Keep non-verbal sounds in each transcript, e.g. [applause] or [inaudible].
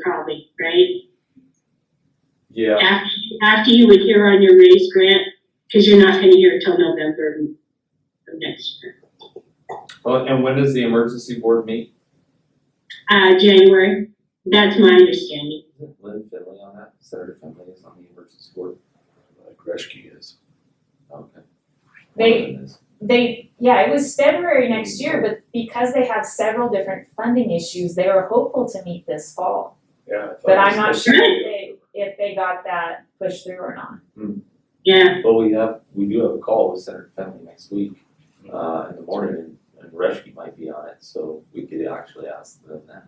probably, right? Yeah, After, after you would hear on your raise grant, because you're not gonna hear it till November of next year. well, Oh, and when does the emergency board meet? Uh, January, that's my understanding. Is it Lynn Finley on that, Senator Finley is on the emergency board, Uh, Greshke is. okay. They- Lynn is. They, yeah, it was February next year, but because they have several different funding issues, they were hopeful to meet this fall. Yeah. I thought But it was I'm not supposed sure to be if they, if they got that pushed through or not. Yeah, Well, we have, we do have a call with Senator Finley next week, uh, in the morning, and, and Reshke might be on it, so we could actually ask them that.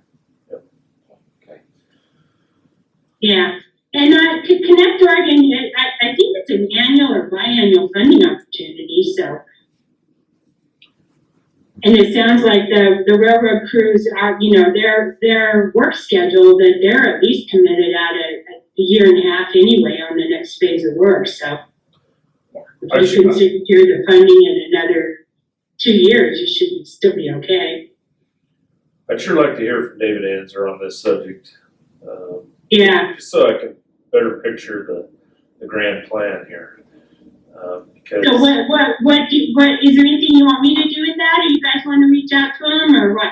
Yep. Okay, yeah. And, uh, to Connect Oregon, I, I think it's an annual or biannual funding opportunity, so. And it sounds like the, the railroad crews are, you know, their, their work schedule, that they're at least committed out a, a year and a half anyway on the next phase of work, so. Yeah. I If see. you can secure the funding in another two years, you should still be okay. I'd sure like to hear from David Anzer on this subject, um, Yeah, just so I can better picture the, the grand plan here. Um, because, So what, what, what do, what, is there anything you want me to do with that, or you guys wanna reach out to him, or what?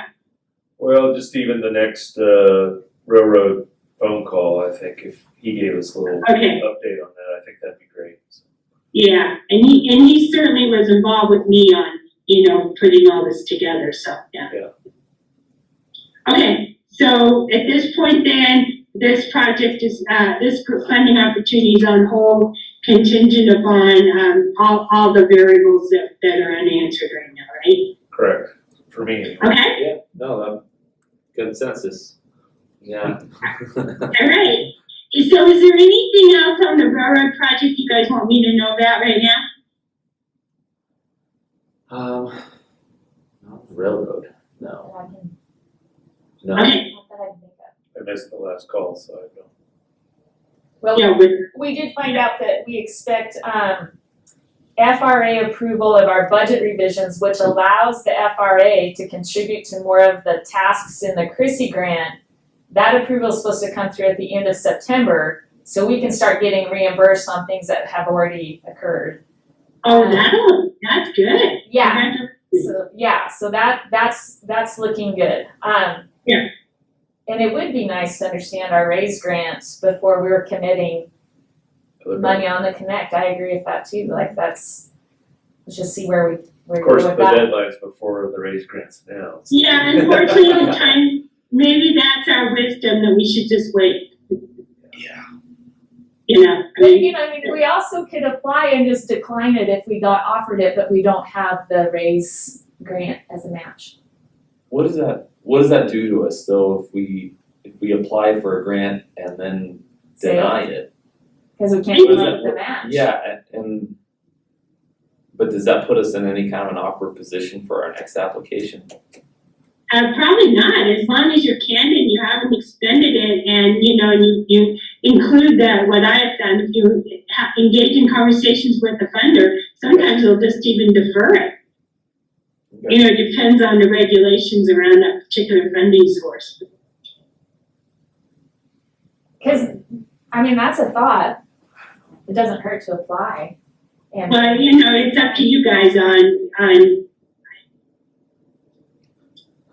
well, just even the next, uh, railroad phone call, I think, if he gave us a little Okay. update on that, I think that'd be great. Yeah, and he, and he certainly was involved with me on, you know, putting all this together, so, yeah. Yeah. Okay, so at this point then, this project is, uh, this gr- funding opportunity is on hold contingent upon, um, all, all the variables that, that are unanswered right now, right? Correct, for me. Okay? yeah, no, um, consensus, yeah. All right, so is there anything else on the railroad project you guys want me to know about right now? [laughs] Um, not railroad, no, But I can- no, Okay, not that I can think of. I missed the last call, so I don't. yeah, Well, with, we did find out that we expect, um, FRA approval of our budget revisions, which allows the FRA to contribute to more of the tasks in the Chrissy grant. That approval is supposed to come through at the end of September, so we can start getting reimbursed on things that have already occurred. oh, that'll, that's good. Yeah, Congratulations. so, yeah, so that, that's, that's looking good, um. Yeah. And it would be nice to understand our raise grants before we were committing money uh, on the connect, I agree with that too, like that's, let's just see where we, where Of we go course, the with that. deadline's before the raise grants now. so- Yeah, unfortunately, the time, maybe that's our wisdom, that we should just wait. Yeah. You know, I But, mean, you know, I mean, we also could apply and just decline it if we got offered it, but we don't have the raise grant as a match. What does that, what does that do to us though, if we, if we apply for a grant and then So, deny it? Cause we What can't is come up it? with a match. Yeah, a- and. But does that put us in any kind of an awkward position for our next application? Uh, probably not, as long as you're candid, you haven't expended it, and, you know, you, you include that, what I have done, if you ha- engage in conversations with the funder, sometimes they'll just even defer it. You know, it depends on the regulations around that particular funding source. Cause, I mean, that's a thought, it doesn't hurt to apply, and. But, you know, it's up to you guys on, on,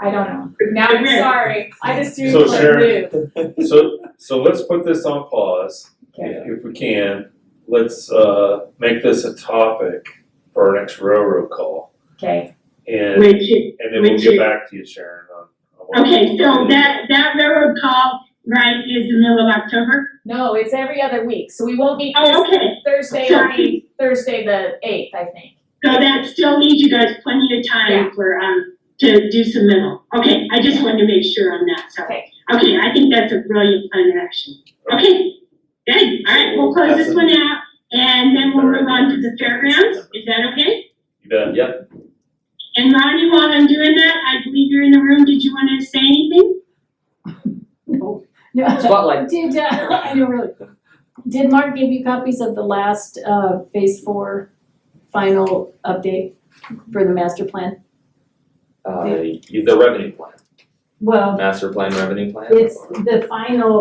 I don't know. Now I'm sorry. I just threw So like Sharon- move. So, so let's put this on pause, Okay. if we can, let's, uh, make this a topic for our next railroad call. Okay. And, which, and then we'll which get is- back to you, Sharon, on. on what okay, we're so doing. that, that railroad call, right, is the middle of October? No, it's every other week, so we won't meet Oh, this okay, Thursday, Sorry. the- Thursday the eighth, I think. so that still leaves you guys plenty of time Yeah. for, um, to do some middle. Okay, I just wanted to make sure on that, so. Okay. Okay, I think that's a brilliant plan of action. Okay, good, all right, we'll close this one out, and then we'll move on to the fairgrounds, is that okay? You bet. Yep, And Ronnie, while I'm doing that, I believe you're in the room, did you wanna say anything? [laughs] spotlight. Did, uh, I know really, did Mark give you copies of the last, uh, phase four final update for the master plan? Uh, the revenue plan, Well, master plan revenue plan? it's the final